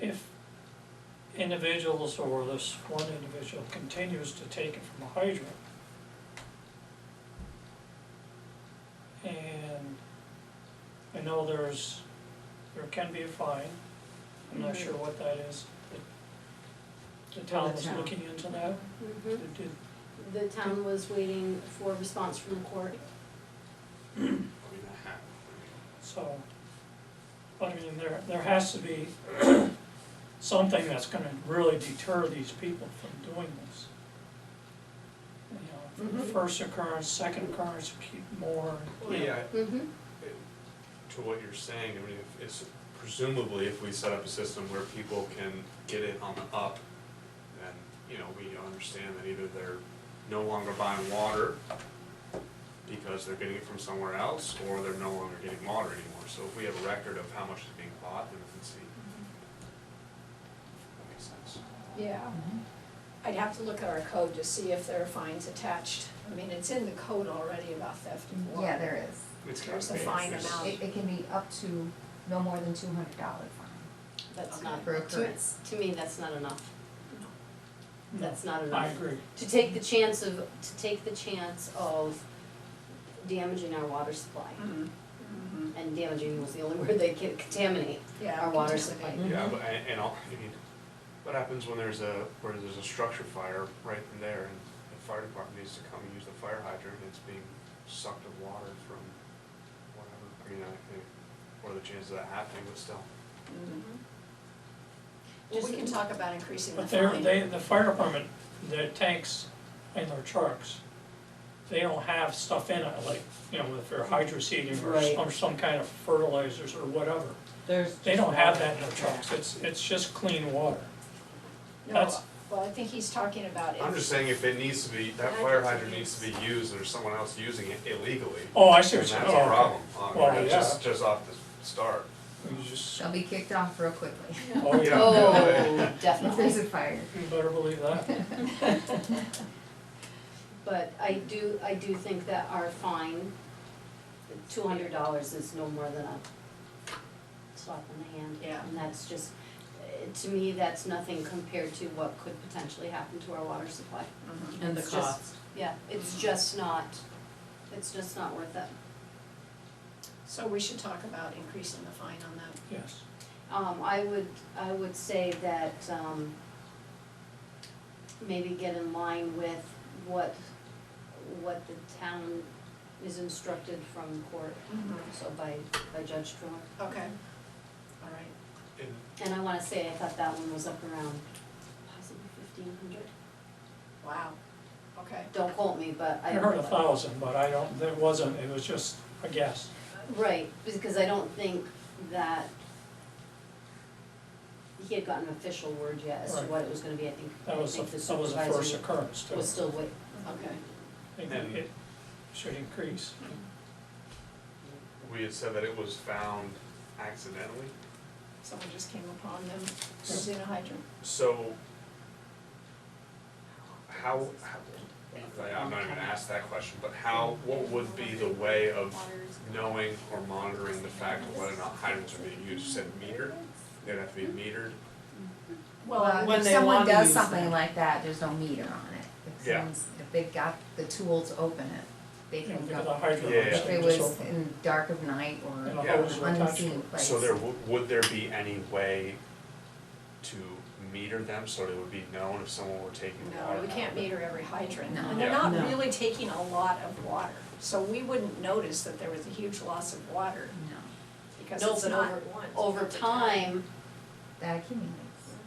if individuals or this one individual continues to take it from a hydrant, and I know there's, there can be a fine, I'm not sure what that is. The- The town was town. looking into that, Mhm. Did- did- The town was waiting for a response from the court. I mean, I have, I so, I mean, there, there has to be something that's gonna really deter these people from doing this. You know, Mhm. first occurrence, second occurrence, pe- more, mean- Well, yeah, Mm-hmm. to what you're saying, I mean, if, it's presumably if we set up a system where people can get it on the up, then, you know, we understand that either they're no longer buying water because they're getting it from somewhere else, or they're no longer getting water anymore, so if we have a record of how much is being bought, then we can see. Mm-hmm. That makes sense. Yeah, I'd have to look at our code to see if there are fines attached. I mean, it's in the code already about theft of water. Yeah, there is. It's There's gotta a be. fine There's- amount. It, it can be up to no more than two hundred dollar fine. That's Okay. not, For to, occurrence. to me, that's not enough. That's not enough. I agree. To take the chance of, to take the chance of damaging our water supply. Mm-hmm. Mm-hmm. And damaging was the only word they could contaminate. Yeah. Our water contaminate. supply. Mm-hmm. Yeah, but, and, and all, I mean, what happens when there's a, where there's a structure fire right in there and the fire department needs to come and use the fire hydrant and it's being sucked of water from whatever, I mean, I think, what are the chances of that happening, but still. Mm-hmm. Well, we can talk about increasing the But they're, fine. they, the fire department, their tanks and their trucks, they don't have stuff in it, like, you know, if they're hydroseeding or Right. some, some kind of fertilizers or whatever. There's. They don't have that in their trucks, it's, it's just clean water. No, That's- well, I think he's talking about I'm if, just saying if it needs to be, that fire hydrant needs to be used and there's someone else using it illegally, Oh, I see then what that's you're a saying. problem, um, Well, that's just, yeah. just off the start. You just, They'll be kicked off real quickly oh, yeah, Oh, if there's definitely. a fire. you better believe that. But I do, I do think that our fine, two hundred dollars is no more than a slap in the hand. Yeah. And that's just, uh, to me, that's nothing compared to what could potentially happen to our water supply. Mm-hmm. And the It's just- cost. Mm-hmm. Yeah, it's just not, it's just not worth it. so we should talk about increasing the fine on that. Yes, Um, I would, I would say that, um, maybe get in line with what, what the town is instructed from the court, so by, by Judge Truitt. Okay, all right. And And I wanna say, I thought that one was up around possibly fifteen hundred. Wow, okay. Don't quote me, but I I. heard a thousand, but I don't, there wasn't, it was just a guess. Right, because I don't think that he had gotten official word yet as to Right. what it was gonna be, I think, I That was, the- think the that was the first supervisor occurrence too. was still wait, Okay. It- And- It should increase. we had said that it was found accidentally, Someone just came upon them using a hydrant. So, how, how, I'm not even gonna ask that question, but how, what would be the way of knowing or monitoring the fact of whether or not hydrants are being used, You said metered? They'd have to be metered, Well, when Uh, if they someone wanna does use something that. like that, there's no meter on it. If Yeah. someone's, if they've got the tool to open it, they You know, can because go. a hydrant Yeah. was If it just was open. in dark of night or And an a Yeah. hose attached to unseen it. place. so there, w- would there be any way to meter them, so it would be known if someone were taking water? No, we can't meter every hydrant, No. and they're Yeah. not No. really taking a lot of water, so we wouldn't notice that there was a huge loss of water, No, because No, it's but not. over time, that accumulates.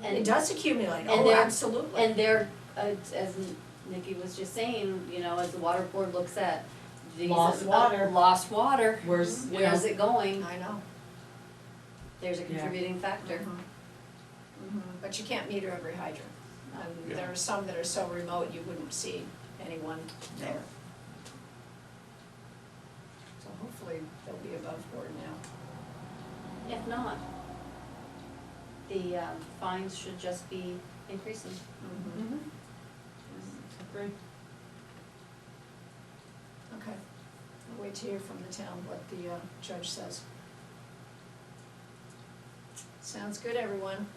It and, does accumulate, And oh, they're- absolutely. and there, uh, as Nikki was just saying, you know, as the water board looks at these. Lost uh, water. Lost water, Where's, you where's know, it going? I know. There's a Yeah. contributing factor. Mhm. But you can't meter every hydrant, and Yeah. there are some that are so remote, you wouldn't see anyone there. So hopefully, they'll be above board now. Uh-huh. If not, the um, fines should just be increasing. Mm-hmm. agree. Okay, I'll wait to hear from the town what the uh, judge says. Sounds good, everyone.